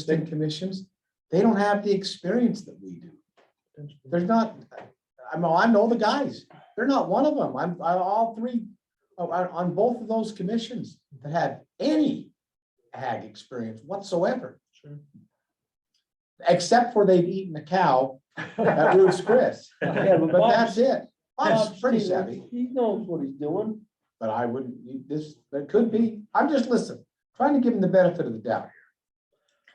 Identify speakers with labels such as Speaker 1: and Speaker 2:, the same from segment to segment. Speaker 1: state commissions, they don't have the experience that we do. There's not, I know, I know the guys, they're not one of them, I'm, I'm all three, oh, on, on both of those commissions that have any ag experience whatsoever.
Speaker 2: Sure.
Speaker 1: Except for they've eaten a cow at Ruth's Chris,
Speaker 2: Yeah,
Speaker 1: but that's it, I'm
Speaker 2: Bob's-
Speaker 1: pretty savvy.
Speaker 2: He knows what he's doing.
Speaker 1: But I wouldn't, you- this, there could be, I'm just listening, trying to give them the benefit of the doubt.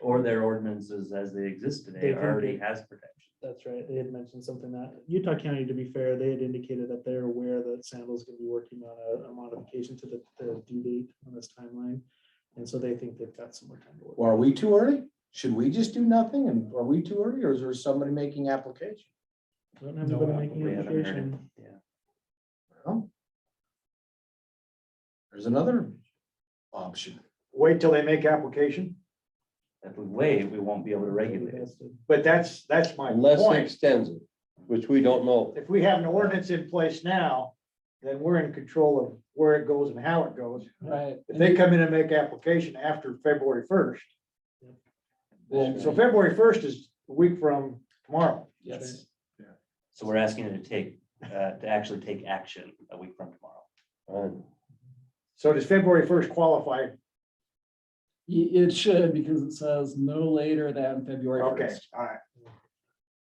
Speaker 3: Or their ordinances as they exist today
Speaker 4: They think
Speaker 3: already
Speaker 4: it-
Speaker 3: has protection.
Speaker 4: That's right. They had mentioned something that Utah County, to be fair, they had indicated that they're aware that Sandals gonna be working on a, a modification to the, the due date on this timeline. And so they think they've got some more time to work.
Speaker 1: Well, are we too early? Should we just do nothing? And are we too early or is there somebody making application?
Speaker 4: I don't have anybody
Speaker 2: No,
Speaker 4: making
Speaker 3: we
Speaker 4: an
Speaker 3: haven't heard
Speaker 4: application.
Speaker 1: Well, There's another option.
Speaker 5: wait till they make application,
Speaker 3: If we wait, we won't be able to regulate it.
Speaker 5: but that's, that's my
Speaker 2: Unless they
Speaker 5: point.
Speaker 2: extends it, which we don't know.
Speaker 5: If we have an ordinance in place now, then we're in control of where it goes and how it goes.
Speaker 2: Right.
Speaker 5: If they come in and make application after February first, so February first is a week from tomorrow.
Speaker 4: Yes.
Speaker 3: So we're asking it to take, uh, to actually take action a week from tomorrow.
Speaker 5: So does February first qualify?
Speaker 6: It should, because it says no later than February
Speaker 5: Okay,
Speaker 6: first.
Speaker 5: all right.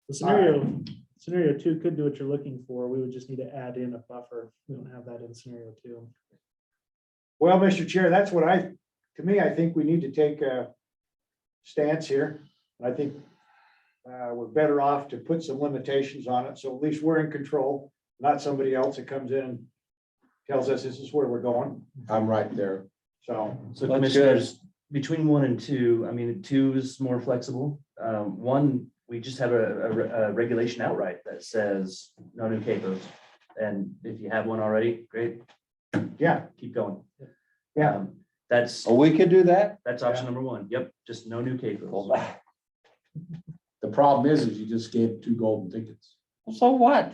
Speaker 4: The scenario, scenario two could do what you're looking for. We would just need to add in a buffer. We don't have that in scenario two.
Speaker 5: Well, Mr. Chair, that's what I, to me, I think we need to take a stance here. I think uh, we're better off to put some limitations on it, so at least we're in control, not somebody else that comes in and tells us this is where we're going,
Speaker 1: I'm right there.
Speaker 5: so.
Speaker 3: So
Speaker 2: That's
Speaker 3: commissioners, between one and two, I mean, two is more flexible. Um, one, we just have a, a re- a regulation outright that says no new capos. And if you have one already, great,
Speaker 5: Yeah,
Speaker 3: keep going.
Speaker 5: Yeah.
Speaker 3: Um, That's,
Speaker 2: Oh, we could do that?
Speaker 3: that's option number one. Yep, just no new capos.
Speaker 1: The problem is, is you just gave two golden tickets.
Speaker 2: So what?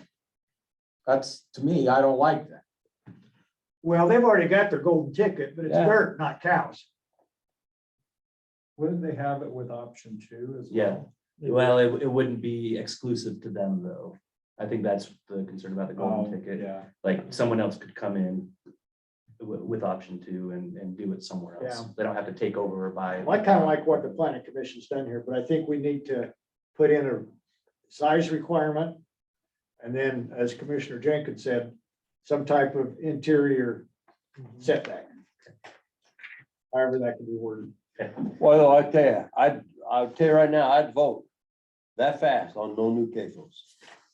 Speaker 1: That's, to me, I don't like that.
Speaker 5: well, they've already got their golden ticket, but it's
Speaker 2: Yeah.
Speaker 5: dirt, not cows.
Speaker 6: Wouldn't they have it with option two as
Speaker 3: Yeah, well, it, it wouldn't be exclusive to them though. I think that's the concern about the
Speaker 5: Um,
Speaker 3: golden ticket.
Speaker 6: Oh, Yeah.
Speaker 3: Like someone else could come in with, with option two and, and do it somewhere else.
Speaker 5: Yeah.
Speaker 3: They don't have to take over or buy.
Speaker 5: I kind of like what the planning commission's done here, but I think we need to put in a size requirement. And then, as Commissioner Jenkins said, some type of interior
Speaker 1: Mhm.
Speaker 5: setback. However, that can be worded.
Speaker 2: Well, I tell you, I'd, I'll tell you right now, I'd vote that fast on no new cases.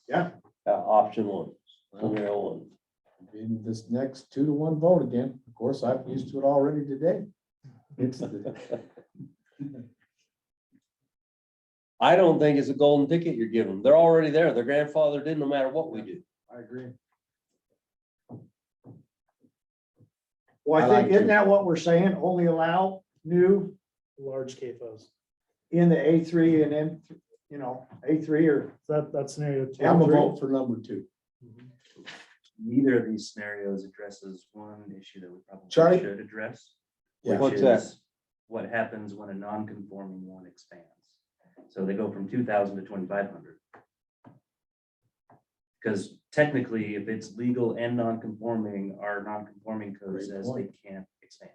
Speaker 5: Yeah.
Speaker 2: Uh, option one, scenario one.
Speaker 1: In this next two to one vote again, of course, I've used to it already today. It's the-
Speaker 2: I don't think it's a golden ticket you're giving. them. They're already there. They're grandfathered in no matter what we do.
Speaker 5: I agree. Well,
Speaker 1: I
Speaker 5: I
Speaker 1: like
Speaker 5: think, isn't
Speaker 1: to.
Speaker 5: that what we're saying? Only allow new
Speaker 4: Large CAFOs.
Speaker 5: in the A three and then, you know, A three or,
Speaker 4: So that, that's scenario two.
Speaker 1: I'm a vote for number two.
Speaker 4: Mhm.
Speaker 3: Neither of these scenarios addresses one issue that we
Speaker 1: Charlie?
Speaker 3: probably should address.
Speaker 1: Yeah.
Speaker 3: which
Speaker 2: What's that?
Speaker 3: is What happens when a non-conforming one expands? So they go from two thousand to twenty-five hundred. Because technically, if it's legal and non-conforming, our non-conforming code
Speaker 1: Great
Speaker 3: says they
Speaker 1: point.
Speaker 3: can't expand.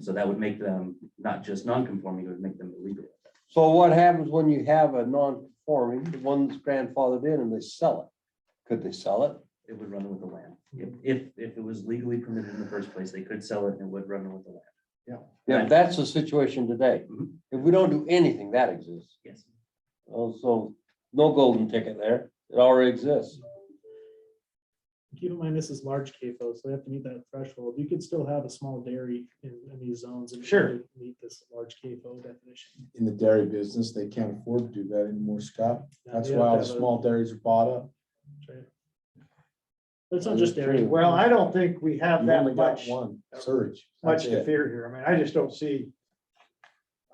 Speaker 3: So that would make them not just non-conforming, it would make them illegal.
Speaker 2: So what happens when you have a non-conforming, the one's grandfathered in and they sell it? Could they sell it?
Speaker 3: It would run with the land. If, if, if it was legally permitted in the first place, they could sell it and it would run with the land.
Speaker 2: Yeah,
Speaker 3: Right.
Speaker 2: that's the situation today.
Speaker 3: Mhm.
Speaker 2: If we don't do anything, that exists.
Speaker 3: Yes.
Speaker 2: Oh, so no golden ticket there. It already exists.
Speaker 4: Keep in mind, this is large CAFO, so they have to meet that threshold. You could still have a small dairy in, in these zones. and
Speaker 5: Sure.
Speaker 4: still Meet this large CAFO definition.
Speaker 1: In the dairy business, they can't afford to do that anymore, Scott. That's
Speaker 4: Now, they have to
Speaker 1: why all the
Speaker 4: have a-
Speaker 1: small dairies are bought up.
Speaker 4: right. But It's not just dairy.
Speaker 5: well, I don't think we have
Speaker 1: You
Speaker 5: that
Speaker 1: only got
Speaker 5: much.
Speaker 1: one, surge. That's
Speaker 5: much to
Speaker 1: it.
Speaker 5: fear here. I mean, I just don't see.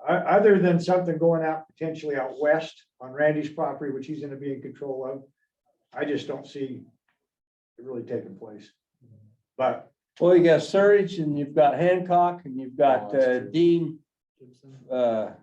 Speaker 5: o- other than something going out potentially out west on Randy's property, which he's gonna be in control of, I just don't see it really taking place. But
Speaker 2: Well, you got Surridge and you've got Hancock and you've got
Speaker 1: Oh, that's
Speaker 2: uh,
Speaker 1: true.
Speaker 2: Dean,
Speaker 4: Gibson.
Speaker 2: uh,